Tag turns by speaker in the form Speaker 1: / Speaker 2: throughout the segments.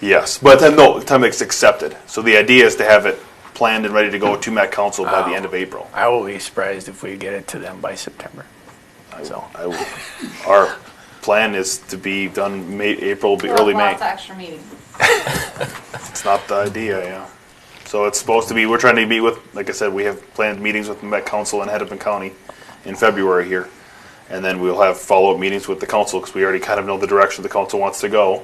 Speaker 1: Yes, but then no, time it's accepted. So the idea is to have it planned and ready to go to Met Council by the end of April.
Speaker 2: I will be surprised if we get it to them by September. So,
Speaker 1: I will- Our plan is to be done May, April, be early May.
Speaker 3: Lots of extra meetings.
Speaker 1: It's not the idea, yeah. So it's supposed to be, we're trying to meet with, like I said, we have planned meetings with Met Council and Hennepin County in February here. And then we'll have follow-up meetings with the council, because we already kind of know the direction the council wants to go,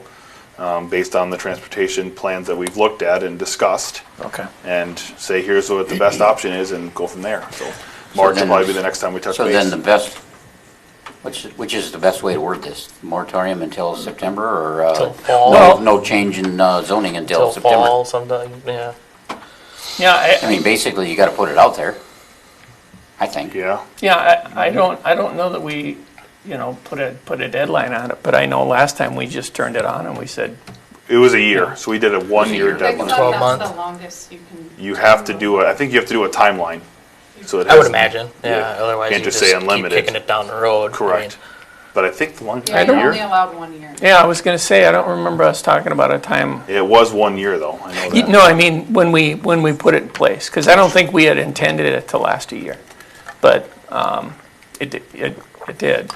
Speaker 1: um, based on the transportation plans that we've looked at and discussed.
Speaker 2: okay.
Speaker 1: And say, here's what the best option is, and go from there. So March will
Speaker 4: then-
Speaker 1: probably be the next time we touch
Speaker 4: So then
Speaker 1: base.
Speaker 4: the best, which, which is the best way to word this? Moratorium until September or? uh,
Speaker 5: Till fall.
Speaker 4: no- No change in uh, zoning until
Speaker 5: Till
Speaker 4: September?
Speaker 5: fall sometime, yeah.
Speaker 2: Yeah,
Speaker 4: I
Speaker 2: I,
Speaker 4: mean, basically, you gotta put it out there, I think.
Speaker 1: Yeah,
Speaker 2: yeah, I, I don't, I don't know that we, you know, put a, put a deadline on it, but I know last time we just turned it on and we said,
Speaker 1: it was a year, so we did a
Speaker 4: year.
Speaker 1: one-year
Speaker 3: Because
Speaker 1: deadline.
Speaker 5: Twelve
Speaker 3: That's
Speaker 5: month.
Speaker 3: the longest you can.
Speaker 1: You have to do, a. I think you have to do a timeline, so it
Speaker 5: I would
Speaker 1: has-
Speaker 5: imagine, yeah,
Speaker 1: Yeah.
Speaker 5: otherwise
Speaker 1: Can't
Speaker 5: you
Speaker 1: just
Speaker 5: just
Speaker 1: say
Speaker 5: keep
Speaker 1: unlimited.
Speaker 5: kicking it down the road. I
Speaker 1: Correct.
Speaker 5: mean,
Speaker 1: But I think the one
Speaker 3: Yeah, you're only
Speaker 1: year,
Speaker 3: allowed one year.
Speaker 2: yeah, I was gonna say, I don't remember us talking about a time.
Speaker 1: it was one year though, I know
Speaker 2: You-
Speaker 1: that.
Speaker 2: No, I mean, when we, when we put it in place, because I don't think we had intended it to last a year, but, um, it, di- it, it did.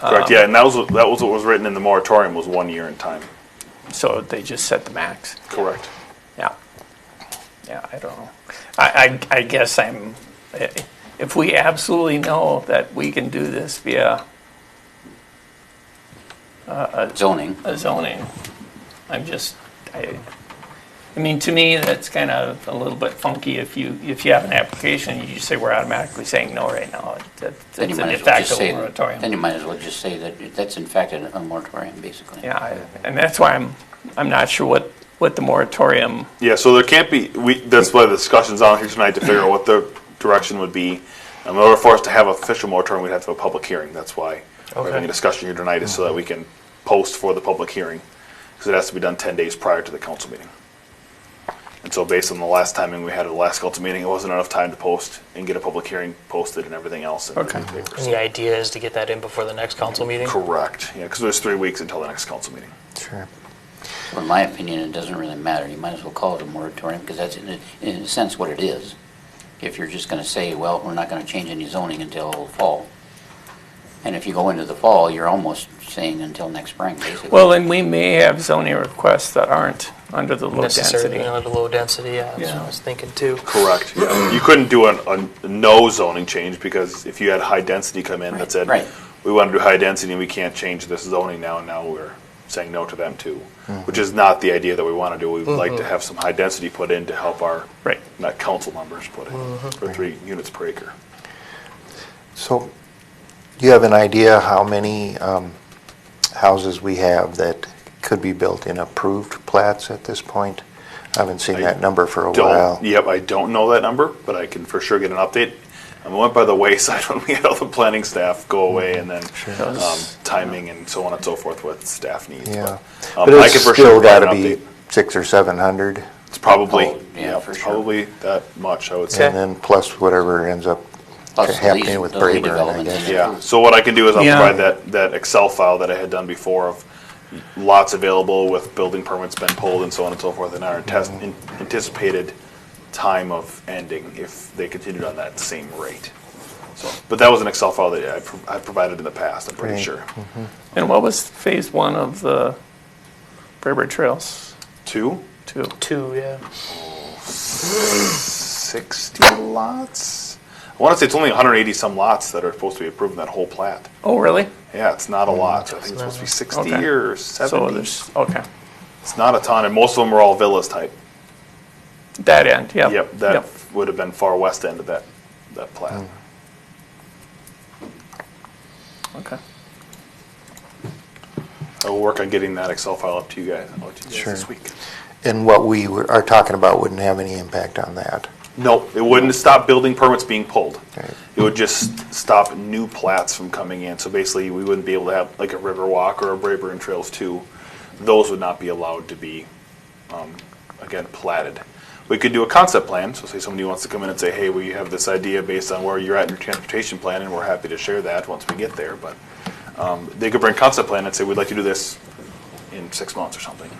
Speaker 1: Correct,
Speaker 5: um,
Speaker 1: yeah, and that was, that was what was written in the moratorium was one year in time.
Speaker 2: So they just set the max.
Speaker 1: Correct.
Speaker 2: Yeah. Yeah, I don't know. I, I, I guess I'm, if we absolutely know that we can do this via
Speaker 4: Zoning,
Speaker 2: a zoning, I'm just, I, I mean, to me, that's kind of a little bit funky if you, if you have an application, you just say we're automatically saying no right now. That-
Speaker 4: then you
Speaker 2: That's a de
Speaker 4: might as well just
Speaker 2: facto
Speaker 4: say, then
Speaker 2: moratorium.
Speaker 4: you might as well just say that that's in fact a a moratorium, basically.
Speaker 2: Yeah, I- and that's why I'm, I'm not sure what, what the moratorium,
Speaker 1: Yeah, so there can't be, we, that's why the discussion's on here tonight to figure out what the direction would be. Um, In order for us to have official moratorium, we'd have to have a public hearing, that's why we're having
Speaker 5: Okay.
Speaker 1: a discussion here tonight is so that we can post for the public hearing. Because it has to be done ten days prior to the council meeting. And so based on the last timing we had at the last council meeting, it wasn't enough time to post and get a public hearing posted and everything else in the
Speaker 2: Okay.
Speaker 1: newspapers.
Speaker 5: And the idea is to get that in before the next council meeting?
Speaker 1: Correct, yeah, because there's three weeks until the next council meeting.
Speaker 6: Sure.
Speaker 4: Well, In my opinion, it doesn't really matter. You might as well call it a moratorium, because that's in a, in a sense what it is. If you're just gonna say, well, we're not gonna change any zoning until fall. And if you go into the fall, you're almost saying until next spring, basically.
Speaker 2: well, and we may have zoning requests that aren't under the low
Speaker 5: Necessarily,
Speaker 2: density.
Speaker 5: you know, the low density, yeah, that's what
Speaker 2: Yeah.
Speaker 5: I was thinking too.
Speaker 1: Correct. You couldn't do a, a no zoning change because if you had high density come in that said,
Speaker 4: right.
Speaker 1: we want to do high density and we can't change this zoning now, and now we're saying no to them too, which is not the idea that we want to do. We would like to have some high density put in to help our,
Speaker 2: Right.
Speaker 1: not council members put in, for three units per acre.
Speaker 6: So do you have an idea how many um, houses we have that could be built in approved plats at this point? I haven't seen that number for a while.
Speaker 1: Don't, yep, I don't know that number, but I can for sure get an update. And we went by the wayside when we had all the planning staff go away and then um, timing and so on and so forth with staff needs.
Speaker 6: Yeah.
Speaker 1: But, um,
Speaker 6: But
Speaker 1: I
Speaker 6: it's
Speaker 1: can for sure
Speaker 6: still
Speaker 1: provide
Speaker 6: got to
Speaker 1: an
Speaker 6: be
Speaker 1: update.
Speaker 6: six or 700,
Speaker 1: It's probably,
Speaker 4: Oh, yeah,
Speaker 1: yeah,
Speaker 4: for sure.
Speaker 1: probably that much, I would
Speaker 6: and
Speaker 1: say.
Speaker 6: then plus whatever ends up
Speaker 4: Plus the lease-
Speaker 6: happening with
Speaker 4: the
Speaker 6: Braeburn, I
Speaker 4: redevelopment.
Speaker 6: guess.
Speaker 1: Yeah, so what I can do is I'll
Speaker 2: Yeah.
Speaker 1: provide that, that Excel file that I had done before of lots available with building permits been pulled and so on and so forth, and our test, in- anticipated time of ending if they continued on that same rate. So, but that was an Excel file that I, pro- I provided in the past, I'm pretty
Speaker 6: Right.
Speaker 1: sure.
Speaker 2: And what was phase one of the Braeburn Trails
Speaker 1: Two,
Speaker 2: two?
Speaker 5: Two, yeah.
Speaker 1: sixty lots? I want to say it's only hundred eighty some lots that are supposed to be approved in that whole plat.
Speaker 2: Oh, really?
Speaker 1: Yeah, it's Mm-hmm. not a lot. I think it's supposed to be sixty
Speaker 2: Okay.
Speaker 1: or
Speaker 2: So
Speaker 1: seventy.
Speaker 2: there's, okay,
Speaker 1: It's not a ton, and most of them are all villas type.
Speaker 2: that end, yeah.
Speaker 1: Yep, that would have been far west end of that, that plat.
Speaker 2: Okay.
Speaker 1: I will work on getting that Excel file up to you guys, out to you guys
Speaker 6: Sure.
Speaker 1: this week.
Speaker 6: And what we were- are talking about wouldn't have any impact on that.
Speaker 1: No, it wouldn't stop building permits being pulled.
Speaker 6: Right.
Speaker 1: It would just stop new plats from coming in. So basically, we wouldn't be able to have like a Riverwalk or a Braeburn Trails Two. Those would not be allowed to be, um, again, platted. We could do a concept plan. So say somebody wants to come in and say, "Hey, we have this idea based on where you're at in your transportation plan, and we're happy to share that once we get there." But um, they could bring concept plan and say, "We'd like to do this in six months or something."